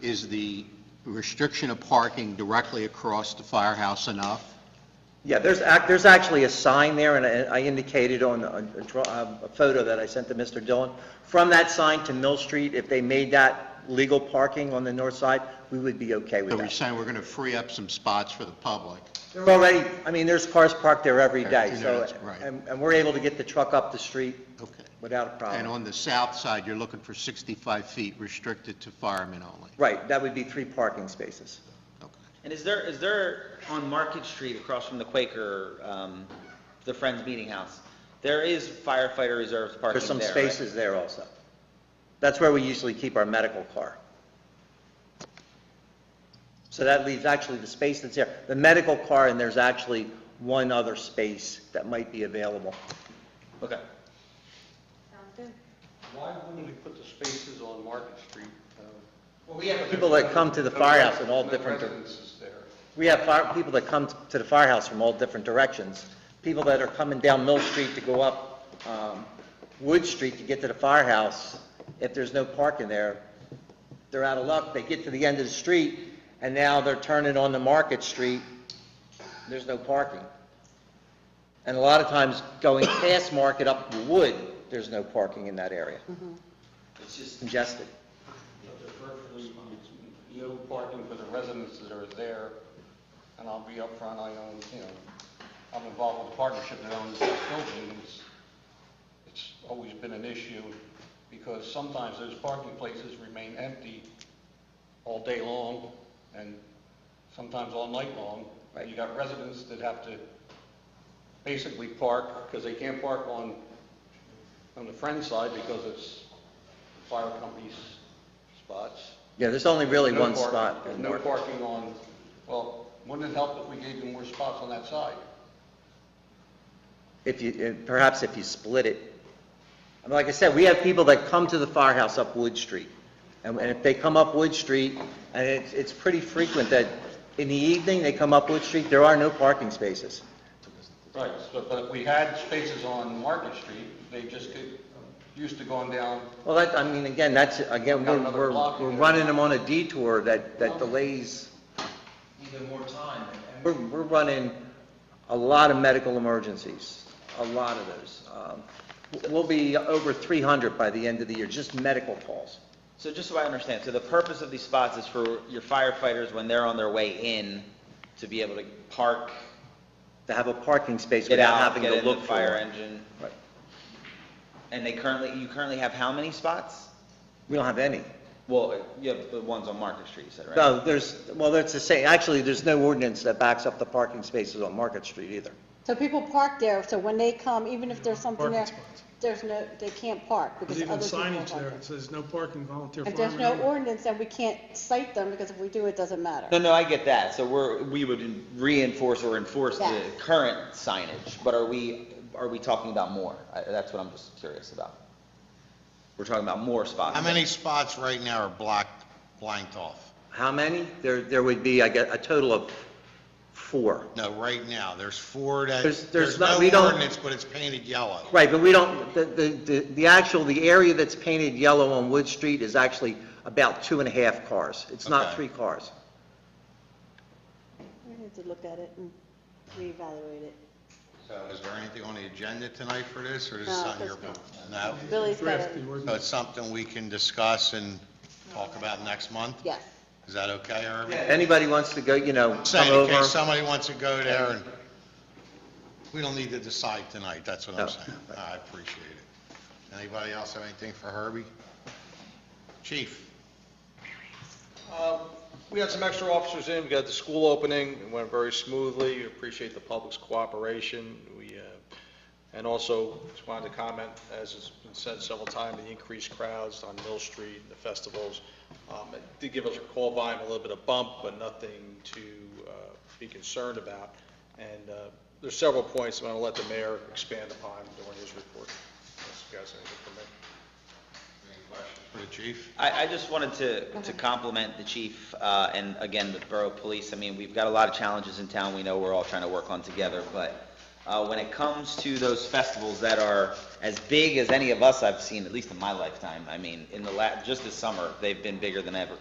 is the restriction of parking directly across the firehouse enough? Yeah, there's, ac- there's actually a sign there, and I I indicated on a a draw- uh, a photo that I sent to Mr. Dillon. From that sign to Mill Street, if they made that legal parking on the north side, we would be okay with So we're that. saying we're going to free up some spots for the public? There are already, I mean, there's cars parked there every day, Afternoons, so, right. and and we're able to get the truck up the street Okay. without a Uh, And problem. on the south side, you're looking for 65 feet restricted to firemen only? Right, that would be three parking spaces. Okay. And is there, is there, on Market Street across from the Quaker, um, the Friends Meeting House, there is firefighter reserves parking There's there, some right? spaces there also. That's where we usually keep our medical car. So that leaves actually the space that's there, the medical car, and there's actually one other space that might be available. Okay. Sounds good. Why wouldn't we put the spaces on Market Street? uh, Well, we have People that come to the firehouse in all no different, dir- residences there. we have fire, people that come to the firehouse from all different directions. People that are coming down Mill Street to go up, um, Wood Street to get to the firehouse, if there's no parking there, they're out of luck, they get to the end of the street, and now they're turning on the Market Street, there's no parking. And a lot of times, going past Market up to Wood, there's no parking in that area. It's just, Congested. But there's virtually no parking for the residences that are there, and I'll be upfront, I own, you know, I'm involved with a partnership that owns this building, and it's, it's always been an issue, because sometimes those parking places remain empty all day long, and sometimes all night long. You got residents that have to basically park, because they can't park on, on the friend side, because it's fire company's spots. Yeah, there's only really No one parking. spot. in There's no Market. parking on, well, wouldn't it help if we gave you more spots on that side? If you, eh, perhaps if you split it. I mean, like I said, we have people that come to the firehouse up Wood Street. And and if they come up Wood Street, and it's, it's pretty frequent that in the evening, they come up Wood Street, there are no parking spaces. Right, so, but if we had spaces on Market Street, they just could, used to going down, Well, that, I mean, again, that's, again, We've got we're, another we're block we're here. running them on a detour that, that delays. even more time, and We're, we're running a lot of medical emergencies, a lot of those. Um, We'll be over 300 by the end of the year, just medical calls. So just so I understand, so the purpose of these spots is for your firefighters, when they're on their way in, to be able to park, To have a parking space get without out, having get to in the look for fire one. engine. Right. And they currently, you currently have how many spots? We don't have any. Well, you have the ones on Market Street, you said, right? No, there's, well, that's the same, actually, there's no ordinance that backs up the parking spaces on Market Street either. So people park there, so when they come, even if there's something there, there's no, they can't park because There's even other people are signage there, parking. it says no parking volunteer If firemen. there's no only." ordinance, then we can't cite them because if we do, it doesn't matter. No, no, I get that. So we're, we would reinforce or enforce the Yes. current signage, but are we, are we talking about more? I- That's what I'm just curious about. We're talking about more spots. How many spots right now are blocked, blanked off? How many? There, there would be, I guess, a total of four. No, right now, there's four that, There's- there's there's not- no we don't- ordinance, but it's painted yellow. Right, but we don't, the, the, the- the actual, the area that's painted yellow on Wood Street is actually about two and a half cars. It's not Okay. three cars. We need to look at it and reevaluate it. So is there anything on the agenda tonight for this, or is this No, on your, there's no? Billy's got Draft the it. So ordinance. it's something we can discuss and talk about next month? Yes. Is that okay, Irving? Anybody wants to go, you know, come Saying in over. case somebody wants to go there, and we don't need to decide tonight, that's what I'm No. saying. I appreciate it. Anybody else have anything for Herbie? Chief? Uh, We had some extra officers in, we got the school opening, it went very smoothly, We appreciate the public's cooperation, we, uh, and also just wanted to comment, as has been said several times, the increased crowds on Mill Street, the festivals, Um, it did give us a call volume, a little bit of bump, but nothing to uh, be concerned about, and uh, there's several points I'm going to let the mayor expand upon during his report, unless you guys have anything for me. Any questions for the chief? I, I just wanted to, to compliment the chief, uh, and again, the borough police. I mean, we've got a lot of challenges in town, we know we're all trying to work on together, but, uh, when it comes to those festivals that are as big as any of us I've seen, at least in my lifetime, I mean, in the la, just this summer, they've been bigger than ever.